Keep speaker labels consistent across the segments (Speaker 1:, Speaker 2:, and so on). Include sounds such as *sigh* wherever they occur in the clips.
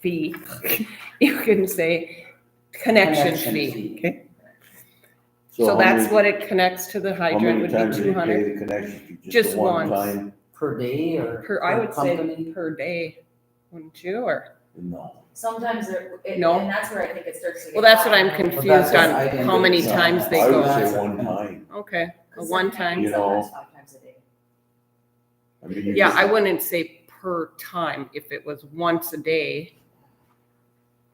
Speaker 1: fee, *laughs* you can say connection fee. So
Speaker 2: how
Speaker 1: that's
Speaker 2: many-
Speaker 1: what it connects to the
Speaker 2: How
Speaker 1: hydrant
Speaker 2: many
Speaker 1: would
Speaker 2: times
Speaker 1: be
Speaker 2: do
Speaker 1: two
Speaker 2: you pay
Speaker 1: hundred
Speaker 2: the connection fee?
Speaker 1: Just
Speaker 2: the one
Speaker 1: once.
Speaker 2: time?
Speaker 3: Per day or?
Speaker 1: per, I
Speaker 3: per
Speaker 1: would say
Speaker 3: company?
Speaker 1: per day, wouldn't you, or?
Speaker 2: No.
Speaker 4: Sometimes it, it-
Speaker 1: No.
Speaker 4: and that's where I think it starts to
Speaker 1: Well,
Speaker 4: get.
Speaker 1: that's what I'm
Speaker 4: bad.
Speaker 3: But
Speaker 1: confused
Speaker 3: that's just
Speaker 1: on,
Speaker 3: identity.
Speaker 1: how many
Speaker 2: No,
Speaker 1: times they
Speaker 2: I
Speaker 1: go.
Speaker 2: would say one time.
Speaker 1: Okay, a one time,
Speaker 2: You know.
Speaker 4: Sometimes five times a day.
Speaker 2: I mean, you
Speaker 1: yeah,
Speaker 2: just-
Speaker 1: I wouldn't say per time, if it was once a day.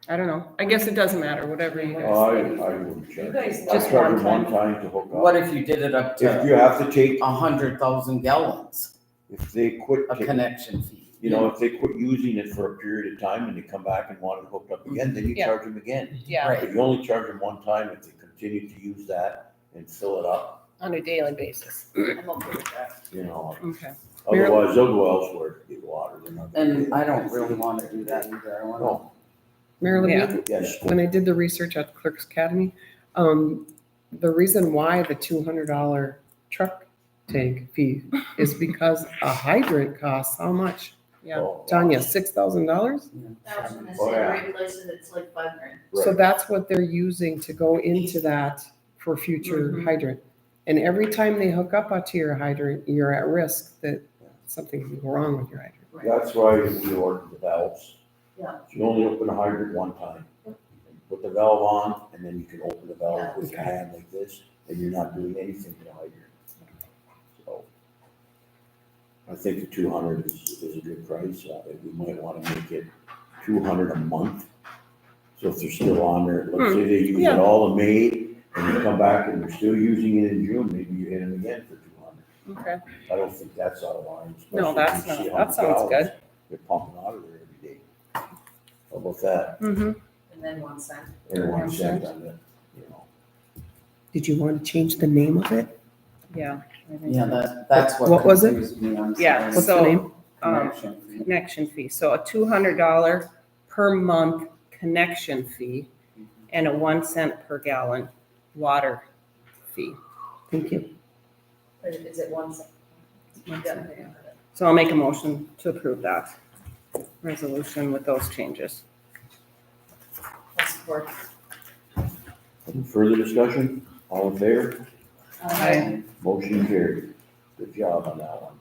Speaker 1: I don't know, I guess it doesn't matter, whatever you
Speaker 2: Oh,
Speaker 1: guys,
Speaker 2: I, I would
Speaker 4: You
Speaker 2: charge.
Speaker 4: guys
Speaker 2: I
Speaker 1: Just
Speaker 4: love
Speaker 2: charge
Speaker 1: one
Speaker 2: them one time to hook
Speaker 3: What
Speaker 2: up.
Speaker 3: if you did it up
Speaker 1: uh,
Speaker 2: If
Speaker 3: to
Speaker 2: you have to take,
Speaker 3: a hundred thousand gallons,
Speaker 2: if they quit,
Speaker 3: a
Speaker 2: ta-
Speaker 3: connection fee?
Speaker 2: you know, if they quit using it for a period of time and they come back and want it hooked up again, then you
Speaker 1: Yeah.
Speaker 2: charge them again.
Speaker 1: yeah,
Speaker 3: Right.
Speaker 2: But you only charge them one time if they continue to use that and fill it up,
Speaker 1: on a daily basis,
Speaker 4: I'm okay with that.
Speaker 2: you know.
Speaker 1: okay. Mary-
Speaker 2: Otherwise, they'll go elsewhere to get water. They're not gonna
Speaker 3: And
Speaker 2: do
Speaker 3: I
Speaker 2: it.
Speaker 3: don't really wanna do that either, I wanna.
Speaker 2: No,
Speaker 5: Marilyn,
Speaker 1: Yeah.
Speaker 5: when-
Speaker 2: yes,
Speaker 5: when I did the research at Clerks Academy, um, the reason why the two hundred dollar truck tank fee is because a hydrant costs how much?
Speaker 1: Yeah.
Speaker 2: oh,
Speaker 5: Tanya, six thousand dollars?
Speaker 4: I was gonna
Speaker 2: Oh,
Speaker 4: say,
Speaker 2: yeah.
Speaker 4: regulations, it's like five grand.
Speaker 5: So
Speaker 2: right.
Speaker 5: that's what they're using to go into that for future
Speaker 1: Mhm.
Speaker 5: hydrant. And every time they hook up to your hydrant, you're at risk that something could go wrong with your hydrant.
Speaker 2: That's why we ordered the valves.
Speaker 4: Yeah.
Speaker 2: You only open a hydrant one time. Put the valve on and then you can open the valve with your hand like this and you're not doing anything to the hydrant. So. I think the two hundred is, is a good price. Uh, we might wanna make it two hundred a month. So if they're still on there, let's say they use it
Speaker 1: yeah.
Speaker 2: all in May and they come back and they're still using it in June, maybe you hit them again for two hundred.
Speaker 1: Okay,
Speaker 2: I don't think that's out of line.
Speaker 1: No,
Speaker 2: especially
Speaker 1: that's
Speaker 2: if you see
Speaker 1: not-
Speaker 2: how
Speaker 1: that
Speaker 2: many
Speaker 1: sounds
Speaker 2: gallons
Speaker 1: good.
Speaker 2: They're pumping out of there every day. How about that?
Speaker 1: mm-hmm,
Speaker 4: And then one cent.
Speaker 2: Everyone
Speaker 1: Makes
Speaker 2: said on it, you know.
Speaker 5: Did you want to change the name of it?
Speaker 1: yeah. I think
Speaker 3: Yeah,
Speaker 1: so.
Speaker 3: that, that's what.
Speaker 5: What was it?
Speaker 3: confused me, I'm
Speaker 1: Yeah,
Speaker 3: sorry.
Speaker 5: What's the
Speaker 1: so,
Speaker 5: name?
Speaker 1: Um,
Speaker 3: Connection fee.
Speaker 1: connection fee, so a two hundred dollar per month connection fee and a one cent per gallon water fee.
Speaker 5: Thank you.
Speaker 4: Or Is it one cent?
Speaker 1: One
Speaker 4: Yeah.
Speaker 1: cent. So I'll make a motion to approve that resolution with those changes.
Speaker 4: I'll support.
Speaker 2: Any Further discussion? All in favor?
Speaker 1: Aye.
Speaker 2: Motion carried. Good job on that one.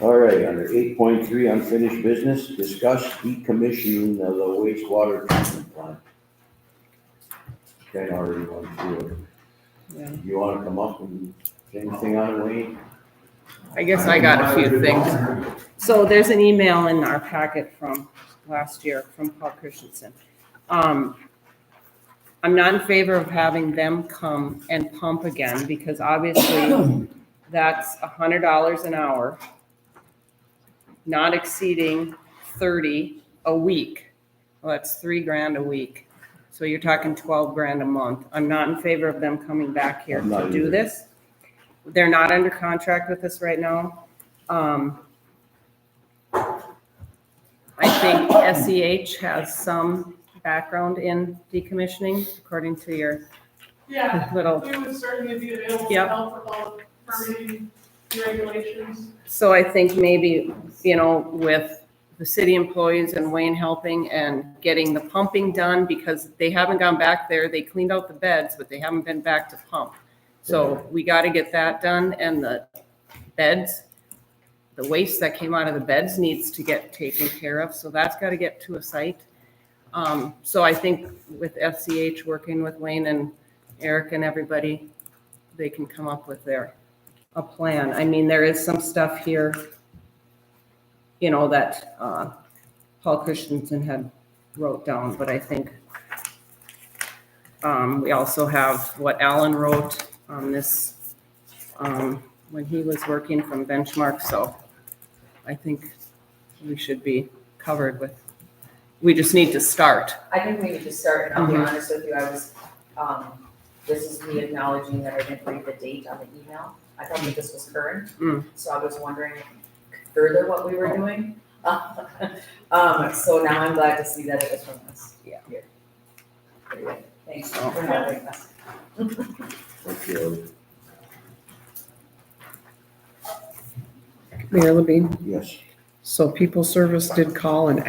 Speaker 2: All right, under eight point three, unfinished business, discuss decommissioning of the wastewater treatment plant. Ken already went through
Speaker 1: Yeah.
Speaker 2: it. You wanna come up and say anything on it, Wayne?
Speaker 1: I guess I got a few things. So there's an email in our packet from last year from Paul Christensen. Um, I'm not in favor of having them come and pump again because *coughs* obviously that's a hundred dollars an hour, not exceeding thirty a week. Well, that's three grand a week. So you're talking twelve grand a month. I'm not in favor of them coming back here
Speaker 2: I'm not
Speaker 1: to do
Speaker 2: either.
Speaker 1: this. They're not under contract with us right now. Um, I think SEH has some background in decommissioning, according to your
Speaker 6: Yeah,
Speaker 1: little,
Speaker 6: we would certainly be available
Speaker 1: Yep.
Speaker 6: to help with all the permitting regulations.
Speaker 1: so I think maybe, you know, with the city employees and Wayne helping and getting the pumping done, because they haven't gone back there, they cleaned out the beds, but they haven't been back to pump. So we gotta get that done, and the beds, the waste that came out of the beds needs to get taken care of, so that's gotta get to a site. Um, so I think with FCH, working with Wayne and Eric and everybody, they can come up with their, a plan. I mean, there is some stuff here, you know, that, uh, Paul Christensen had wrote down, but I think, um, we also have what Alan wrote on this, um, when he was working from Benchmark, so I think we should be covered with, we just need to start.
Speaker 4: I think we need to start, and I'll be
Speaker 1: Mhm.
Speaker 4: honest with you, I was, um, this is me acknowledging that I didn't read the date on the email. I thought that this was current,
Speaker 1: Mm. Oh.
Speaker 4: so I was wondering further what we were doing. *laughs* Um, so now I'm glad to see that it was from us.
Speaker 1: Yeah.
Speaker 4: Anyway, Thanks
Speaker 1: Oh.
Speaker 4: for having us.
Speaker 2: Okay,
Speaker 5: Marilyn Bean?
Speaker 2: yes.
Speaker 5: So people service did call and